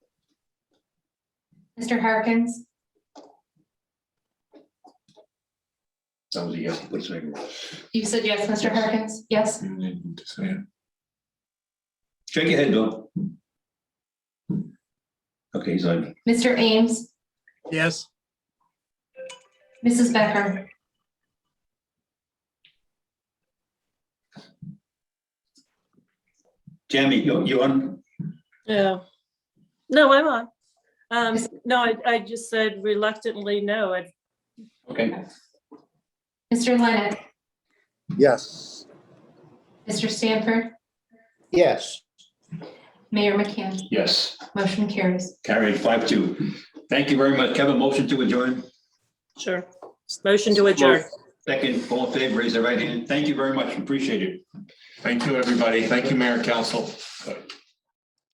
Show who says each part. Speaker 1: Mr. Harkins,
Speaker 2: That was a yes, please say it.
Speaker 1: you said yes, Mr. Harkins, yes?
Speaker 3: You need to say it.
Speaker 2: Shake your head, Bill. Okay, he's on.
Speaker 1: Mr. Ames,
Speaker 4: Yes,
Speaker 1: Mrs. Becker,
Speaker 2: Tammy, you, you on?
Speaker 5: Yeah. No, I'm on. Um, no, I, I just said reluctantly, no, I
Speaker 2: Okay.
Speaker 1: Mr. Leonard,
Speaker 6: Yes.
Speaker 1: Mr. Stanford,
Speaker 6: Yes.
Speaker 1: Mayor McCann,
Speaker 2: Yes,
Speaker 1: motion carries.
Speaker 2: carried five two. Thank you very much. Kevin, motion to adjourn.
Speaker 5: sure. Motion to adjourn.
Speaker 2: Second, all in favor, raise the right hand. Thank you very much. Appreciate it.
Speaker 3: Thank you, everybody. Thank you, Mayor Council.